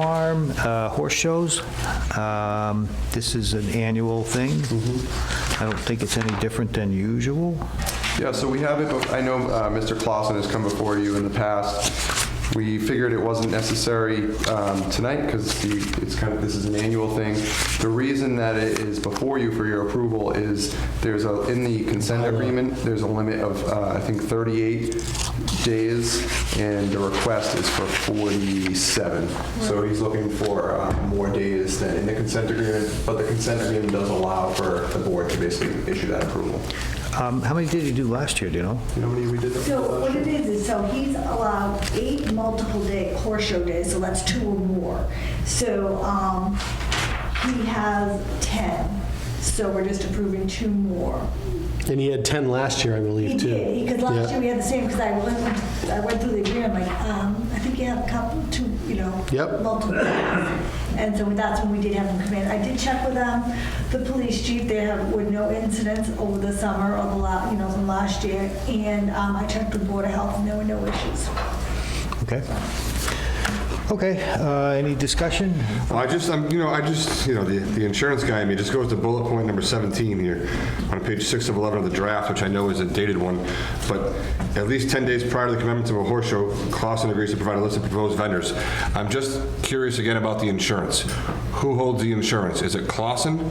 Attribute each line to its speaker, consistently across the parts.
Speaker 1: Farm uh, Horse Shows. Um, This is an annual thing. I don't think it's any different than usual.
Speaker 2: Yeah, so we have it, but I know uh, Mr. Clausen has come before you in the past. We figured it wasn't necessary um, tonight because it's kind of, this is an annual thing. The reason that it is before you for your approval is there's a, in the consent agreement, there's a limit of, uh, I think, 38 days, and the request is for 47. So he's looking for uh, more days than in the consent agreement, but the consent agreement does allow for the board to basically issue that approval.
Speaker 1: Um, How many did he do last year, do you know?
Speaker 2: You know how many we did?
Speaker 3: So what it is, is so he's allowed eight multiple day horse show days, so that's two or more. So um, he has 10, so we're just approving two more.
Speaker 4: And he had 10 last year, I
Speaker 3: He
Speaker 4: believe, too.
Speaker 3: did, because last
Speaker 4: Yeah.
Speaker 3: year we had the same, because I went, I went through the agreement, I'm like, um, I think you have a couple, two, you know.
Speaker 4: Yep.
Speaker 3: Multiple. And so that's when we did have him come in. I did check with um the police chief, there have- were no incidents over the summer or the la, you know, from last year. And um, I checked with Board of Health, and there were no issues.
Speaker 1: Okay. Okay, uh, any discussion?
Speaker 5: I just, I'm, you know, I just, you know, the, the insurance guy in me just goes to bullet point number 17 here on page 6 of 11 of the draft, which I know is a dated one, but at least 10 days prior to the commencement of a horse show, Clausen agrees to provide a list of proposed vendors. I'm just curious again about the insurance. Who holds the insurance? Is it Clausen?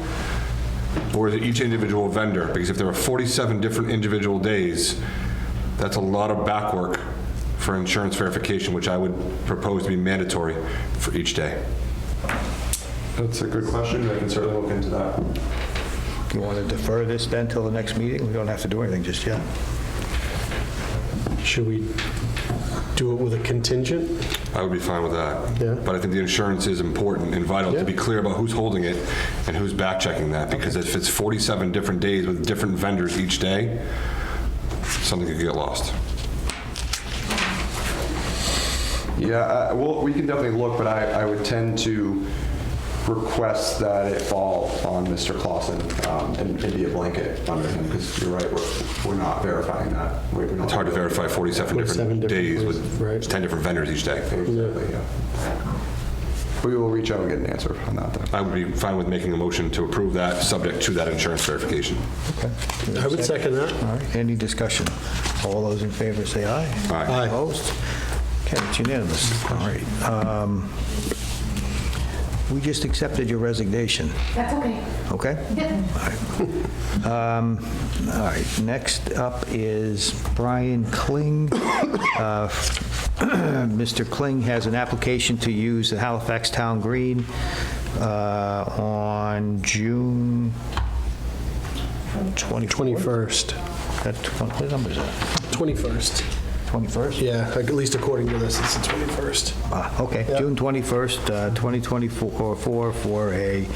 Speaker 5: Or is it each individual vendor? Because if there are 47 different individual days, that's a lot of back work for insurance verification, which I would propose to be mandatory for each day.
Speaker 2: That's a good question. I can certainly look into that.
Speaker 1: You want to defer this then till the next meeting? We don't have to do anything just yet.
Speaker 4: Should we do it with a contingent?
Speaker 5: I would be fine with that.
Speaker 4: Yeah.
Speaker 5: But I think the insurance is important and vital to
Speaker 4: Yeah.
Speaker 5: be clear about who's holding it and who's back checking that. Because if it's 47 different days with different vendors each day, something could get lost.
Speaker 2: Yeah, I- well, we can definitely look, but I, I would tend to request that it fall on Mr. Clausen um, and and be a blanket under him, because you're right, we're, we're not verifying that.
Speaker 5: It's hard to verify 47
Speaker 4: 47
Speaker 5: different
Speaker 4: different
Speaker 5: days
Speaker 4: places,
Speaker 5: with
Speaker 4: right.
Speaker 5: 10 different vendors each day.
Speaker 2: Exactly, yeah. We will reach out and get an answer on that, though.
Speaker 5: I would be fine with making a motion to approve that, subject to that insurance verification.
Speaker 4: I would second that.
Speaker 1: All right, any discussion? All those in favor say aye.
Speaker 5: Aye.
Speaker 4: Aye.
Speaker 1: Opposed? Okay, it's unanimous. All right. um, We just accepted your resignation,
Speaker 6: That's okay.
Speaker 1: okay? Um, All right, next up is Brian Kling. Uh, Mr. Kling has an application to use the Halifax Town Green uh, on June 24th.
Speaker 4: 21st.
Speaker 1: That- What number is that?
Speaker 4: 21st.
Speaker 1: 21st?
Speaker 4: Yeah, like, at least according to this, it's the 21st.
Speaker 1: Ah, Okay, June 21st, uh, 2024, for a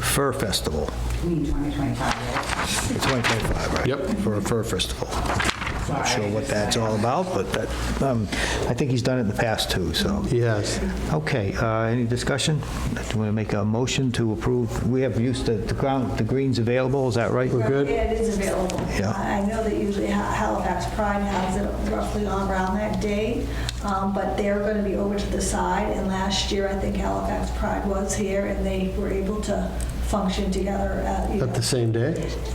Speaker 1: fur festival.
Speaker 6: We need 2025,
Speaker 1: 2025, right? Yep. For a fur festival.
Speaker 6: right?
Speaker 1: Not sure what that's all about, but that, um, I think he's done it in the past, too, so.
Speaker 4: Yes.
Speaker 1: Okay, uh, any discussion? Do you want to make a motion to approve? We have used the the ground, the greens available, is that right?
Speaker 4: We're good.
Speaker 3: Yeah, it is available.
Speaker 1: Yeah.
Speaker 3: I I know that usually Ha- Halifax Pride has it roughly around that date, um, but they're going to be over to the side. And last year, I think Halifax Pride was here, and they were able to function together at, you know,
Speaker 4: At the same day?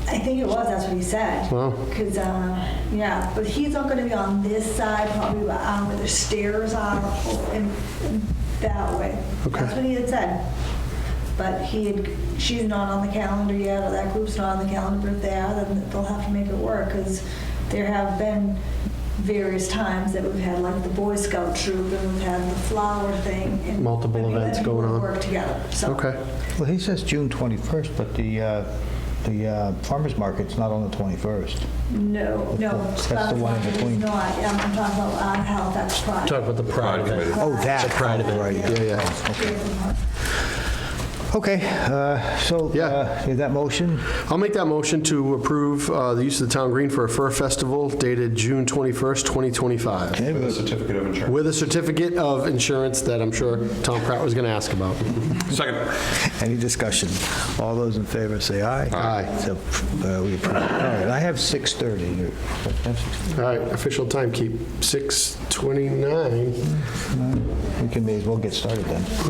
Speaker 3: I think it was, that's what he said.
Speaker 4: Wow.
Speaker 3: Because, yeah, but he's not going to be on this side, probably um, where the stairs are, and and that way.
Speaker 4: Okay.
Speaker 3: That's what he had said. But he had, she's not on the calendar yet, or that group's not on the calendar, if they are, then they'll have to make it work, because there have been various times that we've had, like, the Boy Scout troop, and we've had the flower thing. and
Speaker 4: Multiple
Speaker 3: we've had
Speaker 4: events
Speaker 3: people
Speaker 4: going on.
Speaker 3: Work together, so.
Speaker 4: Okay.
Speaker 1: Well, he says June 21st, but the, uh, the uh, farmer's market's not on the 21st.
Speaker 3: No, no.
Speaker 1: That's the one in between.
Speaker 3: No, I- I'm talking about um, Halifax Pride.
Speaker 4: Talk about the pride of it.
Speaker 1: Oh, that.
Speaker 4: The pride of it.
Speaker 1: Right, yeah.
Speaker 4: Yeah, yeah.
Speaker 1: Okay, uh, so,
Speaker 4: Yeah.
Speaker 1: uh, is that motion?
Speaker 4: I'll make that motion to approve uh, the use of the town green for a fur festival dated June 21st, 2025,
Speaker 1: Okay,
Speaker 2: The certificate of insurance.
Speaker 4: with a certificate of insurance that I'm sure Tom Pratt was going to ask about.
Speaker 5: Second.
Speaker 1: Any discussion? All those in favor say aye.
Speaker 4: Aye.
Speaker 1: So, uh, we approve. All right, I have 6:30. You- that's
Speaker 4: All right, official timekeep, 6:29.
Speaker 1: 6:29. We can may as well get started then.